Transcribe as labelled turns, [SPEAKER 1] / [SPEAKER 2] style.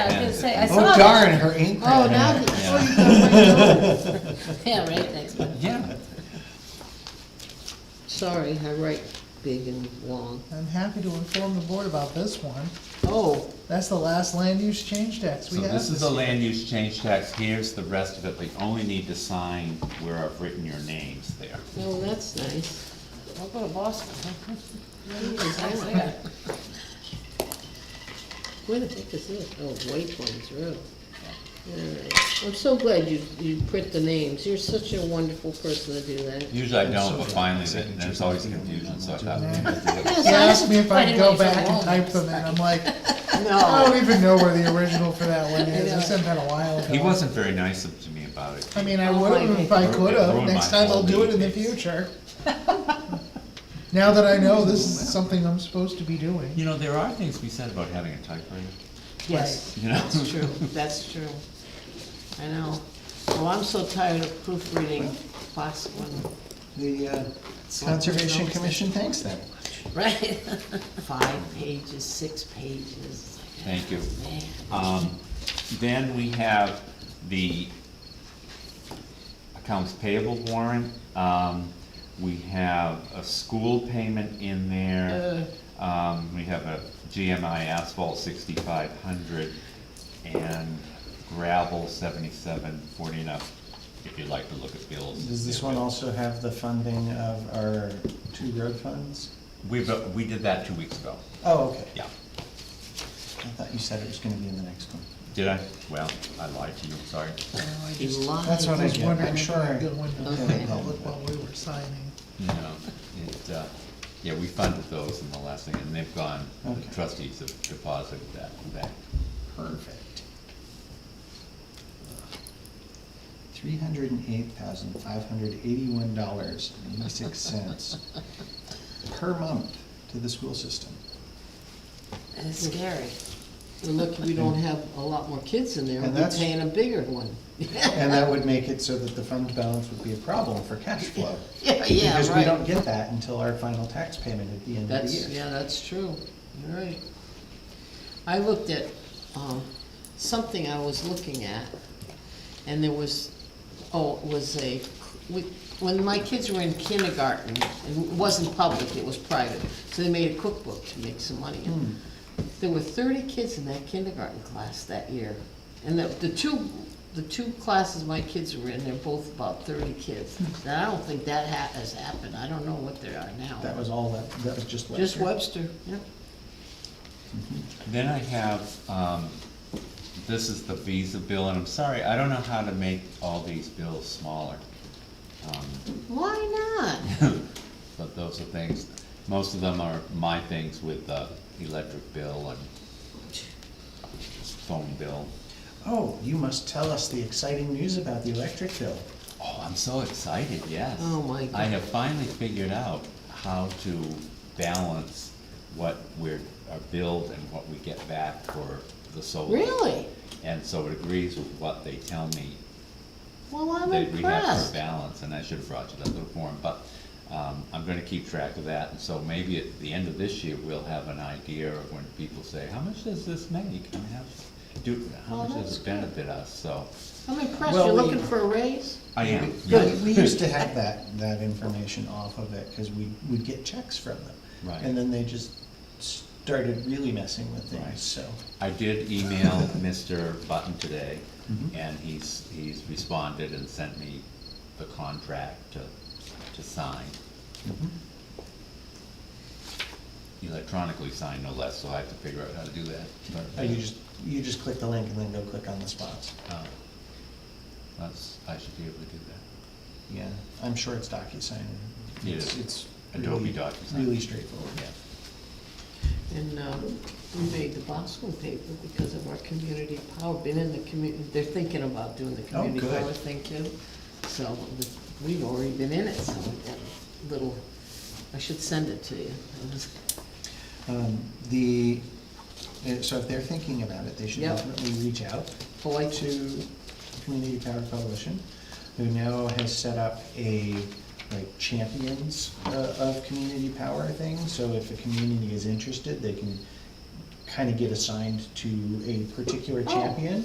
[SPEAKER 1] I was gonna say, I saw
[SPEAKER 2] Oh
[SPEAKER 1] that.
[SPEAKER 2] darn, her ink
[SPEAKER 1] Oh,
[SPEAKER 2] ran
[SPEAKER 1] now,
[SPEAKER 2] out.
[SPEAKER 1] that- oh, you got right on. Yeah, right, next one.
[SPEAKER 2] Yeah,
[SPEAKER 1] Sorry, I write big and long.
[SPEAKER 3] I'm happy to inform the board about this one.
[SPEAKER 1] Oh,
[SPEAKER 3] That's the last land use change tax
[SPEAKER 4] So
[SPEAKER 3] we have.
[SPEAKER 4] this is
[SPEAKER 3] this
[SPEAKER 4] a
[SPEAKER 3] year.
[SPEAKER 4] land use change tax, here's the rest of it, but you only need to sign where I've written your names there.
[SPEAKER 1] well, that's nice. I'll go to Boston. huh? It's nice there. Where the heck is this? Oh, Waypoints Road. Alright. I'm so glad you, you print the names. You're such a wonderful person to do that.
[SPEAKER 4] Usually I don't, but finally, that- there's always confusion, so I thought. we need to do it.
[SPEAKER 1] Yes,
[SPEAKER 3] He
[SPEAKER 1] I-
[SPEAKER 3] asked me if
[SPEAKER 1] I
[SPEAKER 3] I'd
[SPEAKER 1] didn't
[SPEAKER 3] go
[SPEAKER 1] write so
[SPEAKER 3] back and
[SPEAKER 1] long.
[SPEAKER 3] type them, and I'm like, I
[SPEAKER 1] No.
[SPEAKER 3] don't even know where the original for that one
[SPEAKER 1] I
[SPEAKER 3] is,
[SPEAKER 1] know.
[SPEAKER 3] it's been a while ago.
[SPEAKER 4] He wasn't very nice to me about it.
[SPEAKER 3] I mean, I
[SPEAKER 1] Oh,
[SPEAKER 3] would've
[SPEAKER 1] my
[SPEAKER 3] if I
[SPEAKER 4] God.
[SPEAKER 3] could've,
[SPEAKER 4] Ruined my
[SPEAKER 3] next time I'll
[SPEAKER 4] whole
[SPEAKER 3] do it in the
[SPEAKER 4] week.
[SPEAKER 3] future. Now that I know this is something I'm supposed to be doing.
[SPEAKER 4] You know, there are things we said about having a typewriter,
[SPEAKER 1] Yes,
[SPEAKER 4] you know?
[SPEAKER 1] that's true, that's true. I know. Well, I'm so tired of proofreading class one,
[SPEAKER 2] the uh, Conservation Commission thanks them.
[SPEAKER 1] right? Five pages, six pages.
[SPEAKER 4] Thank you.
[SPEAKER 1] Man.
[SPEAKER 4] Um, Then we have the accounts payable warrant. Um, We have a school payment in there. Um, We have a GMI asphalt sixty-five hundred and gravel seventy-seven forty up, if you'd like to look at bills.
[SPEAKER 2] Does this one also have the funding of our two road funds?
[SPEAKER 4] We've, uh, we did that two weeks ago,
[SPEAKER 2] Oh, okay.
[SPEAKER 4] yeah.
[SPEAKER 2] I thought you said it was gonna be in the next one.
[SPEAKER 4] Did I? Well, I lied to you, sorry.
[SPEAKER 1] You lied.
[SPEAKER 2] That's what I
[SPEAKER 3] was
[SPEAKER 2] get.
[SPEAKER 3] wondering
[SPEAKER 2] I'm
[SPEAKER 3] if
[SPEAKER 2] sure.
[SPEAKER 3] I'd go into the
[SPEAKER 1] Okay.
[SPEAKER 3] public while we were signing.
[SPEAKER 4] No, it, uh, yeah, we funded those in the last thing, and they've gone, the
[SPEAKER 2] Okay.
[SPEAKER 4] trustees have deposited that back.
[SPEAKER 2] Perfect. Three hundred and eight thousand, five hundred eighty-one dollars and eighty-six cents per month to the school system.
[SPEAKER 1] That's scary. We're lucky we don't have a lot more kids in there,
[SPEAKER 2] And
[SPEAKER 1] we're
[SPEAKER 2] that's-
[SPEAKER 1] paying a bigger one.
[SPEAKER 2] And that would make it so that the fund balance would be a problem for cash flow.
[SPEAKER 1] Yeah, yeah,
[SPEAKER 2] Because we don't
[SPEAKER 1] right.
[SPEAKER 2] get that until our final tax payment at the end of the
[SPEAKER 1] That's,
[SPEAKER 2] year.
[SPEAKER 1] yeah, that's true, you're right. I looked at, um, something I was looking at, and there was, oh, it was a, when my kids were in kindergarten, it wasn't public, it was private, so they made a cookbook to make some money.
[SPEAKER 2] Hmm.
[SPEAKER 1] There were thirty kids in that kindergarten class that year, and the, the two, the two classes my kids were in, they're both about thirty kids.
[SPEAKER 2] Hmm.
[SPEAKER 1] Now, I don't think that ha- has happened, I don't know what they are now.
[SPEAKER 2] That was all that, that was just last
[SPEAKER 1] Just
[SPEAKER 2] year.
[SPEAKER 1] Webster, yeah.
[SPEAKER 4] Then I have, um, this is the visa bill, and I'm sorry, I don't know how to make all these bills smaller. Um,
[SPEAKER 1] Why not?
[SPEAKER 4] But those are things, most of them are my things with the electric bill and phone bill.
[SPEAKER 2] Oh, you must tell us the exciting news about the electric bill.
[SPEAKER 4] Oh, I'm so excited, yes.
[SPEAKER 1] Oh, my
[SPEAKER 4] I
[SPEAKER 1] God.
[SPEAKER 4] have finally figured out how to balance what we're, our billed and what we get back for the solar.
[SPEAKER 1] Really?
[SPEAKER 4] And so it agrees with what they tell me
[SPEAKER 1] Well, I'm
[SPEAKER 4] that we have to
[SPEAKER 1] impressed.
[SPEAKER 4] balance, and I should have brought you that little form, but, um, I'm gonna keep track of that, and so maybe at the end of this year, we'll have an idea of when people say, how much does this make? I mean, how, do, how
[SPEAKER 1] Well,
[SPEAKER 4] much does
[SPEAKER 1] that's
[SPEAKER 4] it benefit us, so.
[SPEAKER 1] I'm impressed,
[SPEAKER 2] Well,
[SPEAKER 1] you're
[SPEAKER 2] we-
[SPEAKER 1] looking for a raise?
[SPEAKER 4] I am.
[SPEAKER 2] We- We used to have that, that information off of it, because we, would get checks from them.
[SPEAKER 4] Right.
[SPEAKER 2] And then they just started really messing with
[SPEAKER 4] Right.
[SPEAKER 2] things, so.
[SPEAKER 4] I did email Mr. Button today,
[SPEAKER 2] Mm-hmm.
[SPEAKER 4] and he's, he's responded and sent me the contract to, to sign, electronically signed no less, so I have to figure out how to do that. but-
[SPEAKER 2] Oh, you just, you just click the link and then go click on the spots.
[SPEAKER 4] Oh. That's, I should be able to do that.
[SPEAKER 2] Yeah, I'm sure it's DocuSign.
[SPEAKER 4] Yeah.
[SPEAKER 2] It's- It's.
[SPEAKER 4] Adobe
[SPEAKER 2] really-
[SPEAKER 4] DocuSign.
[SPEAKER 2] Really straightforward.
[SPEAKER 1] And uh, we made the Boston paper because of our community power, been in the community, they're thinking about doing the
[SPEAKER 2] Oh,
[SPEAKER 1] community
[SPEAKER 2] good.
[SPEAKER 1] power thing too. So we- we've already been in it, so that little, I should send it to you. It was-
[SPEAKER 2] Um, the, uh, so if they're thinking about it, they should
[SPEAKER 1] Yep.
[SPEAKER 2] definitely reach out
[SPEAKER 1] Oh, I-
[SPEAKER 2] to Community Power Coalition, who now has set up a, like, champions uh, of community power thing, so if a community is interested, they can kind of get assigned to a particular
[SPEAKER 1] Oh.
[SPEAKER 2] champion.